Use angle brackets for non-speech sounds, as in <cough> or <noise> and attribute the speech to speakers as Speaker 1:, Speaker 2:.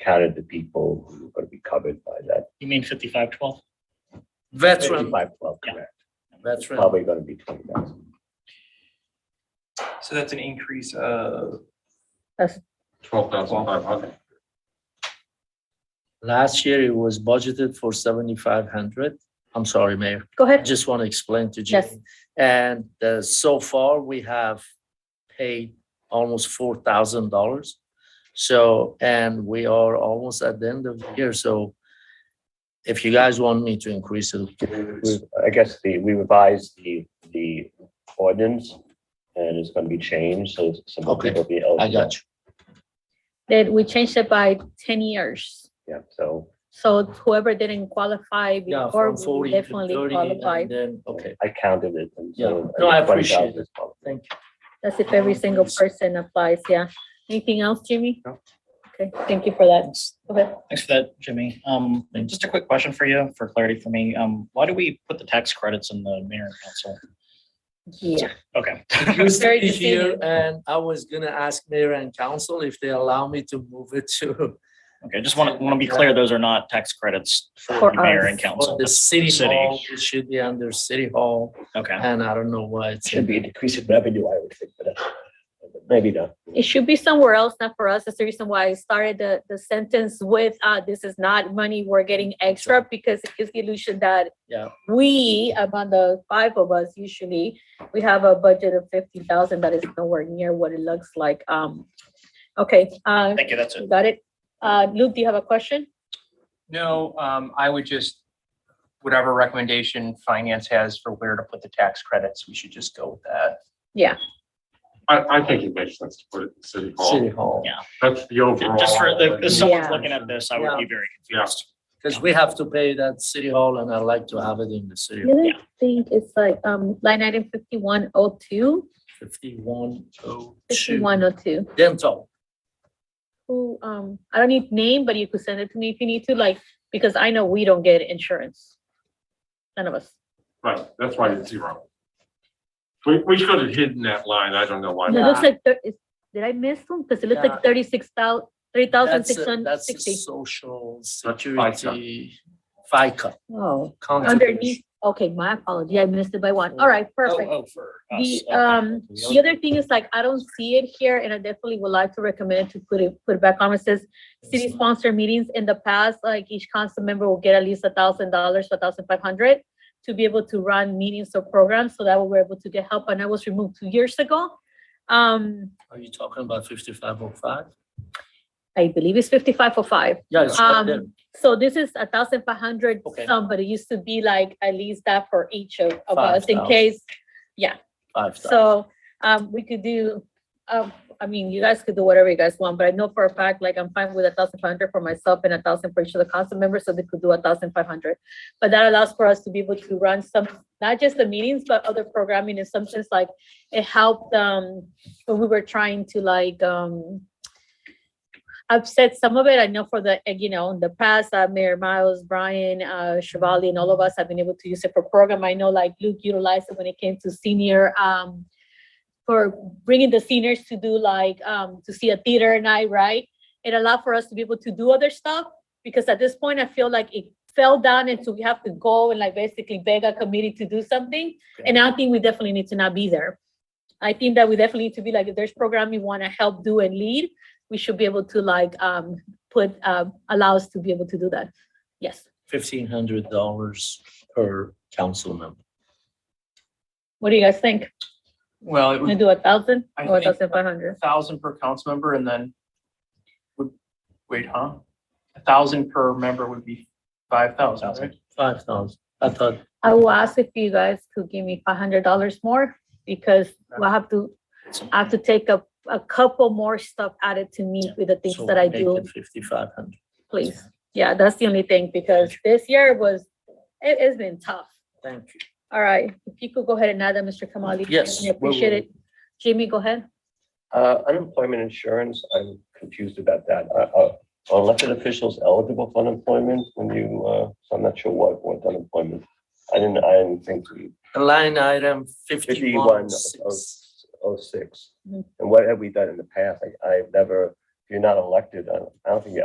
Speaker 1: counted the people who are going to be covered by that.
Speaker 2: You mean fifty-five twelve?
Speaker 3: Veteran,
Speaker 1: 55, well,
Speaker 2: Yeah.
Speaker 1: correct.
Speaker 3: veteran.
Speaker 1: Probably going to be twenty thousand.
Speaker 4: So that's an increase of,
Speaker 5: Twelve thousand five hundred.
Speaker 3: Last year it was budgeted for seventy-five hundred. I'm sorry, Mayor.
Speaker 6: Go
Speaker 3: I
Speaker 6: ahead.
Speaker 3: just want to explain to
Speaker 6: Yes.
Speaker 3: Jimmy. And uh, so far, we have paid almost four thousand dollars. So, and we are almost at the end of the year, so if you guys want me to increase it,
Speaker 1: We- I guess the, we revised the, the ordinance and it's going to be changed, so some
Speaker 3: Okay,
Speaker 1: people will be
Speaker 3: I
Speaker 1: eligible.
Speaker 3: got you.
Speaker 6: That we changed it by ten years.
Speaker 1: Yeah, so
Speaker 6: So whoever didn't qualify
Speaker 3: Yeah,
Speaker 6: before
Speaker 3: from
Speaker 6: will
Speaker 3: forty to
Speaker 6: definitely
Speaker 3: thirty,
Speaker 6: qualify.
Speaker 3: and then, okay,
Speaker 1: I counted it. and so
Speaker 3: Yeah. No, I appreciate
Speaker 1: 20,000 is probably-
Speaker 3: thank you.
Speaker 6: That's if every single person applies, yeah. Anything else, Jimmy?
Speaker 1: No.
Speaker 6: Okay, thank you for that. Go ahead.
Speaker 2: Thanks for that, Jimmy. Um,
Speaker 3: Thank you.
Speaker 2: just a quick question for you, for clarity for me. Um, why do we put the tax credits in the mayor and council?
Speaker 6: Yeah.
Speaker 2: Okay.
Speaker 3: <laughs> Used to
Speaker 6: Very
Speaker 3: be
Speaker 6: good
Speaker 3: here,
Speaker 6: feeling.
Speaker 3: and I was gonna ask mayor and council if they allow me to move it to
Speaker 2: <laughs> Okay, just want to, want to be clear, those are not tax credits for
Speaker 6: For
Speaker 2: the mayor and
Speaker 6: us.
Speaker 2: council.
Speaker 3: the city
Speaker 2: City.
Speaker 3: hall, it should be under city hall,
Speaker 2: Okay,
Speaker 3: and I don't know why it's.
Speaker 1: Should be a decrease in revenue, I would think, but that's- maybe not.
Speaker 6: It should be somewhere else, not for us. That's the reason why I started the, the sentence with, uh, this is not money we're getting extra because it gives the illusion that
Speaker 3: Yeah.
Speaker 6: we, among the five of us usually, we have a budget of fifty thousand, but it's nowhere near what it looks like. Um, okay, uh,
Speaker 2: thank you, that's
Speaker 6: you
Speaker 2: it.
Speaker 6: got it. Uh, Luke, do you have a question?
Speaker 4: no, um, I would just, whatever recommendation finance has for where to put the tax credits, we should just go with that.
Speaker 6: Yeah,
Speaker 5: I, I think it makes sense to put it in city
Speaker 3: City
Speaker 5: hall.
Speaker 3: hall.
Speaker 2: Yeah.
Speaker 5: That's the overall.
Speaker 2: Just for, the- if someone's
Speaker 6: Yeah.
Speaker 2: looking at this, I would be very confused.
Speaker 3: Because we have to pay that city hall and I like to have it in the city hall.
Speaker 6: I think it's like, um, line item fifty-one oh two,
Speaker 3: Fifty-one oh two.
Speaker 6: fifty-one oh two.
Speaker 3: Dental.
Speaker 6: Who, um, I don't need name, but you could send it to me if you need to, like, because I know we don't get insurance. None of us.
Speaker 5: Right, that's why it's zero. We, we should have hidden that line, I don't know why.
Speaker 6: It
Speaker 3: No,
Speaker 5: not.
Speaker 6: looks like, thir- is- did I miss one? Because it looks
Speaker 3: Yeah.
Speaker 6: like thirty-six thousand, three thousand
Speaker 3: That's
Speaker 6: six
Speaker 3: a-
Speaker 6: hundred
Speaker 3: that's a
Speaker 6: sixty.
Speaker 3: Social
Speaker 5: FICA.
Speaker 3: security, FICA.
Speaker 6: Oh, underneath,
Speaker 3: contribution.
Speaker 6: okay, my apology, I missed it by one. All right,
Speaker 2: Oh,
Speaker 6: perfect.
Speaker 2: oh, for us.
Speaker 6: The,
Speaker 2: Okay.
Speaker 6: um, the other thing is like, I don't see it here and I definitely would like to recommend to put it, put it back on. It says city sponsored meetings in the past, like each council member will get at least a thousand dollars, a thousand five hundred to be able to run meetings or programs. So that way we're able to get help. And I was removed two years ago. Um,
Speaker 3: Are you talking about fifty-five oh five?
Speaker 6: I believe it's fifty-five for five.
Speaker 3: Yeah, it's right there.
Speaker 6: Um, so this is a thousand five hundred,
Speaker 3: Okay.
Speaker 6: some, but it used to be like at least that for each of, of
Speaker 3: Five
Speaker 6: us in
Speaker 3: thousand.
Speaker 6: case.
Speaker 3: Five thousand.
Speaker 6: So, um, we could do, um, I mean, you guys could do whatever you guys want, but I know for a fact, like, I'm fine with a thousand five hundred for myself and a thousand for each of the council members, so they could do a thousand five hundred. But that allows for us to be able to run some, not just the meetings, but other programming in some sense, like, it helped, um, when we were trying to like, um, upset some of it. I know for the, uh, you know, in the past, uh, Mayor Miles, Brian, uh, Shivali, and all of us have been able to use it for program. I know like Luke utilized it when it came to senior, um, for bringing the seniors to do like, um, to see a theater night, right? It allowed for us to be able to do other stuff, because at this point, I feel like it fell down and so we have to go and like basically beg a committee to do something. And I think we definitely need to not be there. I think that we definitely need to be like, if there's program we want to help do and lead, we should be able to like um put uh allow us to be able to do that. Yes.
Speaker 3: Fifteen hundred dollars per council member.
Speaker 6: What do you guys think?
Speaker 4: Well, it
Speaker 6: Can we
Speaker 4: would
Speaker 6: do a thousand
Speaker 4: I
Speaker 6: or a
Speaker 4: think-
Speaker 6: thousand five hundred?
Speaker 4: thousand per council member and then would, wait, huh? A thousand per member would be five thousand, right?
Speaker 3: Five thousand. I thought,
Speaker 6: I will ask if you guys could give me five hundred dollars more because we'll have to, I have to take a a couple more stuff added to me
Speaker 3: Yeah.
Speaker 6: with the things
Speaker 3: so
Speaker 6: that I
Speaker 3: make
Speaker 6: do.
Speaker 3: it Fifty-five hundred.
Speaker 6: Please. Yeah, that's the only thing because this year was, it has been tough.
Speaker 3: Thank you.
Speaker 6: All right, if you could go ahead and add that, Mr. Kamali.
Speaker 3: Yes,
Speaker 6: I
Speaker 3: we will.
Speaker 6: appreciate it. Jimmy, go ahead.
Speaker 1: Uh, unemployment insurance, I'm confused about that. Uh, uh, Are elected officials eligible for unemployment when you, uh, so I'm not sure what, what unemployment. I didn't, I didn't think we,
Speaker 3: Line item
Speaker 1: fifty-one
Speaker 3: fifty-one
Speaker 1: oh,
Speaker 3: six.
Speaker 1: oh six.
Speaker 6: Mhm.
Speaker 1: And what have we done in the past? I, I've never, if you're not elected, I don't- I don't think you're